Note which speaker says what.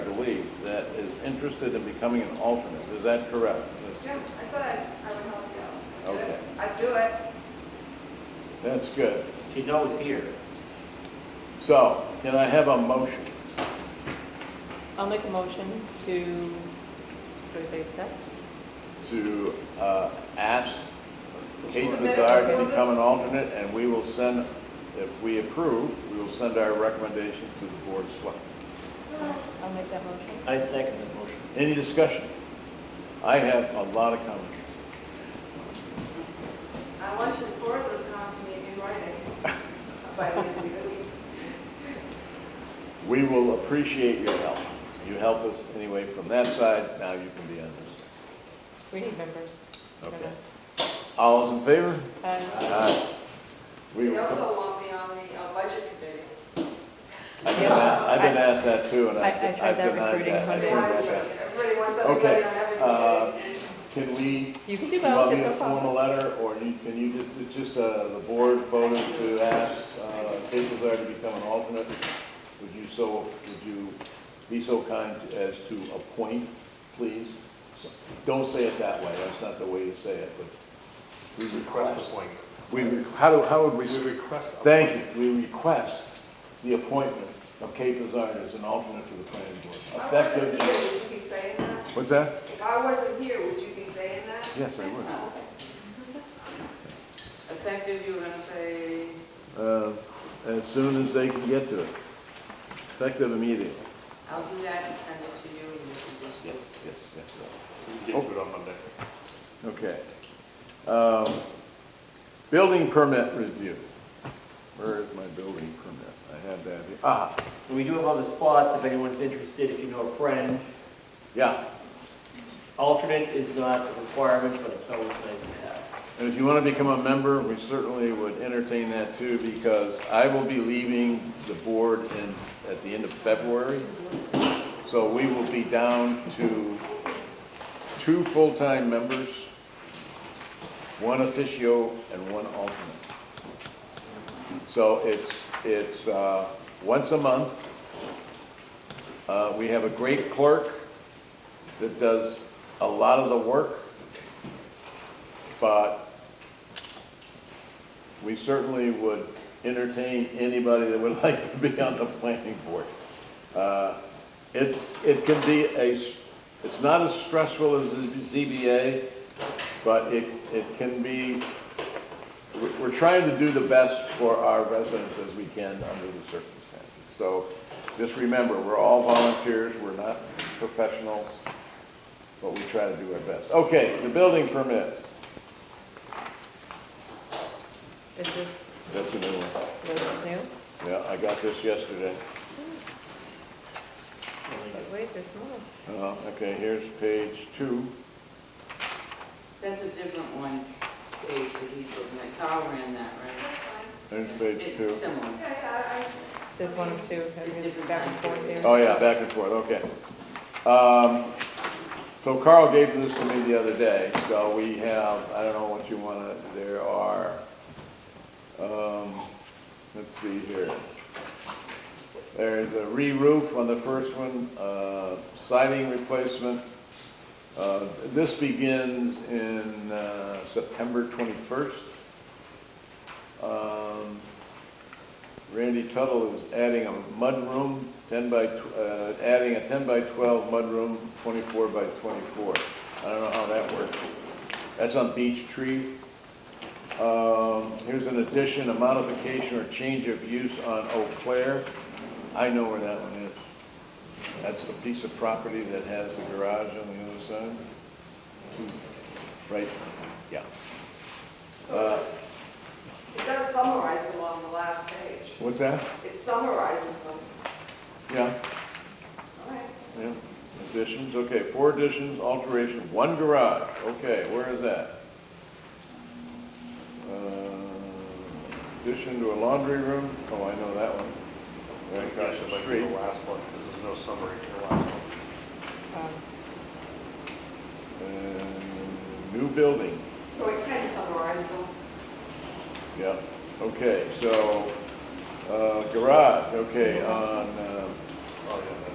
Speaker 1: interested in becoming an alternate, is that correct? Ms.
Speaker 2: Yeah, I said I, I would help you out.
Speaker 1: Okay.
Speaker 2: I'd do it.
Speaker 1: That's good.
Speaker 3: She's always here.
Speaker 1: So, can I have a motion?
Speaker 4: I'll make a motion to, what do I say, accept?
Speaker 1: to uh, ask Kate
Speaker 2: Submit it
Speaker 1: Bizarre to
Speaker 2: before the-
Speaker 1: become an alternate, and we will send, if we approve, we will send our recommendation to the Board of Selectmen.
Speaker 4: I'll make that motion.
Speaker 3: I second the motion.
Speaker 1: Any discussion? I have a lot of comments.
Speaker 2: I want you to forward those comments to me in writing by the end of the week.
Speaker 1: We will appreciate your help. You help us anyway from that side, now you can be on this.
Speaker 4: We need members. I don't
Speaker 1: Okay.
Speaker 4: know.
Speaker 1: All those in favor?
Speaker 4: Uh,
Speaker 1: Aye. We
Speaker 2: They
Speaker 1: will-
Speaker 2: also want me on the uh, budget committee.
Speaker 1: I've been a- I've been asked that too, and
Speaker 4: I- I
Speaker 1: I've
Speaker 4: tried
Speaker 1: I've
Speaker 4: that
Speaker 1: denied
Speaker 4: recruiting
Speaker 1: that. I
Speaker 4: Okay.
Speaker 1: turned that down.
Speaker 2: Everybody wants
Speaker 1: Okay,
Speaker 2: everybody on every
Speaker 1: uh,
Speaker 2: committee.
Speaker 1: Can we
Speaker 4: You can do
Speaker 1: Do you want
Speaker 4: both,
Speaker 1: me
Speaker 4: it's
Speaker 1: to
Speaker 4: no
Speaker 1: form a
Speaker 4: problem.
Speaker 1: letter, or you, can you just, it's just, uh, the board voted to ask, uh, Kate Lazar to become an alternate? Would you so, would you be so kind as to appoint, please? So- Don't say it that way, that's not the way to say it, but we request.
Speaker 5: appointment.
Speaker 1: We, re- how do, how would we,
Speaker 5: We request.
Speaker 1: thank you, we request the appointment of Kate Lazar as an alternate to the planning board,
Speaker 2: If I wasn't
Speaker 1: effective.
Speaker 2: here, would you be saying that?
Speaker 1: What's that?
Speaker 2: If I wasn't here, would you be saying that?
Speaker 1: Yes, I would.
Speaker 2: Effective, you were gonna say?
Speaker 1: uh, as soon as they can get to it, effective immediately.
Speaker 2: I'll do that and send it to you and you can just.
Speaker 1: Yes, yes, yes.
Speaker 5: We get to it on Monday.
Speaker 1: Okay. Um, Building permit review. Where is my building permit? I have that here. Ah,
Speaker 3: We do have other spots if anyone's interested, if you know a friend.
Speaker 1: yeah.
Speaker 3: Alternate is not a requirement, but it's always nice to have.
Speaker 1: And if you want to become a member, we certainly would entertain that too, because I will be leaving the board in, at the end of February. So we will be down to two full-time members, one officio and one alternate. So it's, it's, uh, once a month. Uh, we have a great clerk that does a lot of the work but we certainly would entertain anybody that would like to be on the planning board. Uh, It's, it can be a, s- it's not as stressful as the ZBA, but it, it can be, we- we're trying to do the best for our residents as we can under the circumstances. So just remember, we're all volunteers, we're not professionals, but we try to do our best. Okay, the building permit.
Speaker 4: Is this,
Speaker 1: That's a new one.
Speaker 4: this is new?
Speaker 1: Yeah, I got this yesterday.
Speaker 4: But Wait, there's more.
Speaker 1: Uh, Okay, here's page two.
Speaker 6: That's a different one, page that he's looking at, Carl ran that, right?
Speaker 2: That's fine.
Speaker 1: There's page
Speaker 6: It's
Speaker 1: two.
Speaker 6: similar.
Speaker 2: Yeah, yeah,
Speaker 4: There's one of two, I guess, back and forth here.
Speaker 1: Oh, yeah, back and forth, okay. Um, So Carl gave this to me the other day, so we have, I don't know what you want to, there are, um, let's see here. There's a re-roof on the first one, uh, siding replacement. Uh, This begins in uh, September 21st. Um, Randy Tuttle is adding a mudroom, 10 by, tw- uh, adding a 10 by 12 mudroom, 24 by 24. I don't know how that works. That's on Beech Tree. Um, Here's an addition, a modification or change of use on Eau Claire. I know where that one is. That's the piece of property that has the garage on the other side. Two, Right, yeah. Uh,
Speaker 2: so it does summarize them on the last page.
Speaker 1: What's that?
Speaker 2: It summarizes them.
Speaker 1: Yeah.
Speaker 2: All right.
Speaker 1: Yeah, additions, okay, four additions, alteration, one garage, okay, where is that? Uh, Addition to a laundry room, oh, I know that one. Right across the
Speaker 5: Like
Speaker 1: street.
Speaker 5: The last one, 'cause there's no summary to the last one.
Speaker 1: Oh.
Speaker 4: Um,
Speaker 1: And New building,
Speaker 2: So it can summarize them.
Speaker 1: yeah, okay, so, uh, garage, okay, on
Speaker 5: Oh,